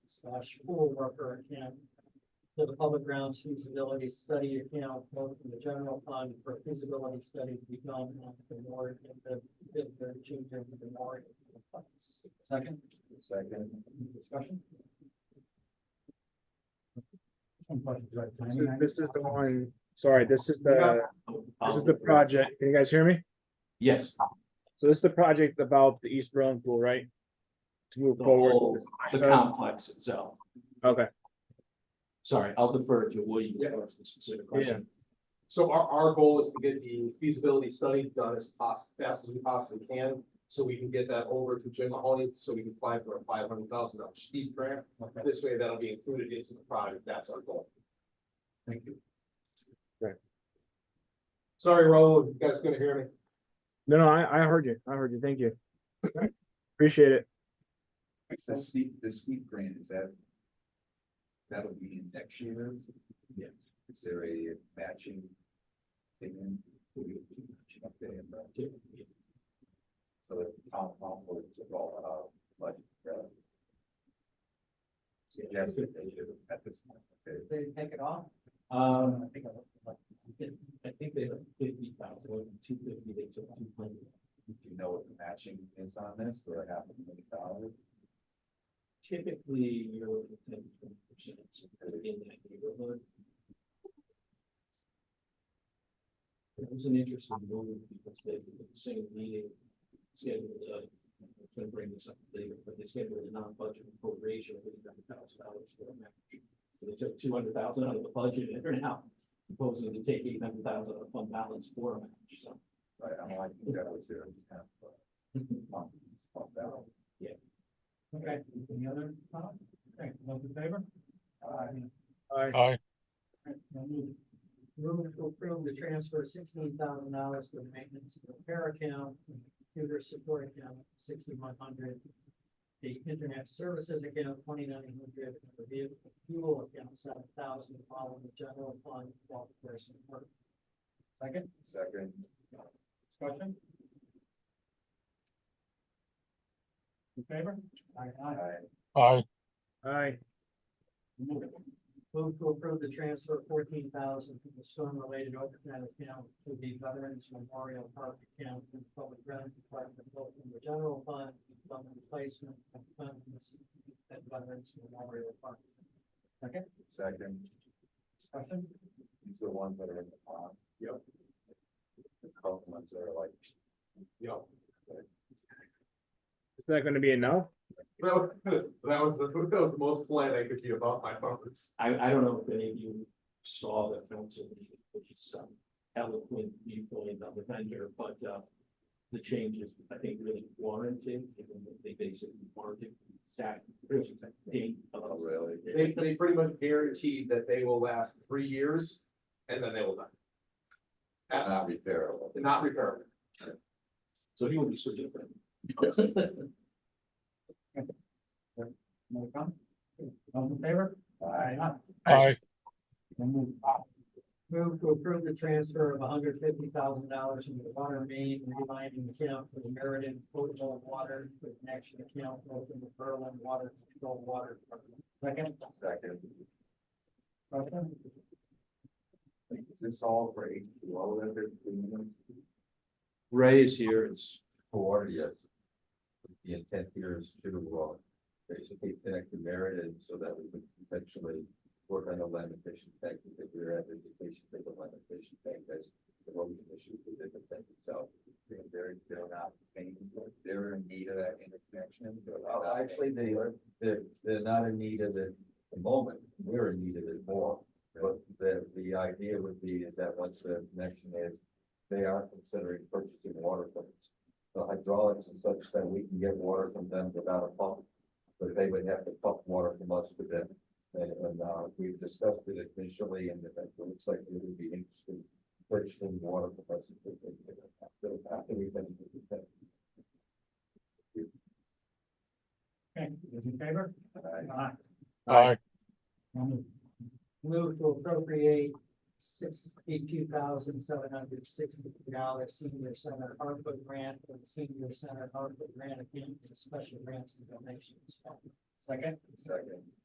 slash pool worker account to the public grounds feasibility study account, both in the general fund for feasibility study to be done on the board and the, the, the junior of the board. Second? Second. Discussion? This is, this is the one, sorry, this is the, this is the project, can you guys hear me? Yes, So this is the project about the East Berlin pool, right? To move the forward, whole, the complex itself. okay, Sorry, I'll defer to William for the specific question. So our, our goal is to get the feasibility study done as poss, fast as we possibly can, so we can get that over to Jim Mahoney, so we can apply for a five hundred thousand dollar steep grant. This way, that'll be included into the project, that's our goal. Thank you. Sorry, Raul, you guys gonna hear me? no, no, I, I heard you, I heard you, thank you. Appreciate it, The steep, the steep grant, is that? That'll be in next year's? Yeah. Is there a matching? thing in? Will you be matching up there and that? So that the town council to roll it out, but. uh, Suggest that they should at this point. okay? Did they take it off? Um, I think, I think they, fifty thousand, two fifty, they took two hundred. Do you know what the matching is on this, or half a million dollars? Typically, you're looking at twenty percent in that neighborhood. It was an interesting moment because they, did the same meeting, scheduled, uh, I'm gonna bring this up later, but they scheduled a non-budget appropriation of eighty nine thousand dollars for a match. So They took two hundred thousand out of the budget and they're now proposing to take eight hundred thousand out of fund balance for a match, so. Right, I'm like, that was there. half a month, half a dollar. Okay, any other comment? Okay, those in favor? Aye. alright, Alright, so moved. Moving to approve the transfer sixteen thousand dollars to the maintenance and repair account, computer support account sixty-one hundred. The internet services account twenty-nine hundred, the vehicle fuel account seven thousand, following the general fund, while the person work. Second, Second, discussion? In favor? Aye, aye. I. alright, Move to approve the transfer of fourteen thousand from the storm-related overtime account to the Veterans Memorial Park account in the Public Grounds Department, both in the general fund, and fund replacement, and funds at Veterans Memorial Park. Second, Second, discussion? these are the ones that are in the pond. Yep. The cold ones are like, No. is that gonna be enough? That was, that was the, that was the most polite I could be about my comments. I, I don't know if any of you saw the council meeting, which is um, eloquent viewpoint on the vendor, but, uh, the changes, I think, really warranted, given that they basically warranted exact, pretty much exact date of. oh, really? They, they pretty much guaranteed that they will last three years, and then they will die, Not repairable. They're not repairable. So he will be so different. No comment? Those in favor? Aye. Move to approve the transfer of hundred fifty thousand dollars from the water main relining account for the Meriden potable water to the connection account, both in the Berlin Water Control Water Department. Second, Second, discussion? is this all for eight, all of their premiums? Ray is here, it's, Four, yes. The intent here is to, uh, basically connect the merit and so that we could potentially work on the limitation tank, because we're at education, they the limitation tank, that's the erosion issue within the tank itself. They're, they're- they're not, paying for it. they're in need of that interconnection. Actually, they are, they're, they're not in need of it at the moment, we're in need of it more. But the, the idea would be is that once the connection is, they are considering purchasing water from us the hydraulics and such that we can get water from them without a pump. But they would have to pump water from us to them. And, and, uh, we've discussed it initially and it it looks like it would be interesting purchasing water from us. if they- if they- after- After we've been. Okay, those in favor? Aye. Aye. Move to appropriate sixty-two thousand seven hundred sixty-three dollars senior center ARPA grant for the senior center ARPA grant account for special grants and donations. Second, Second,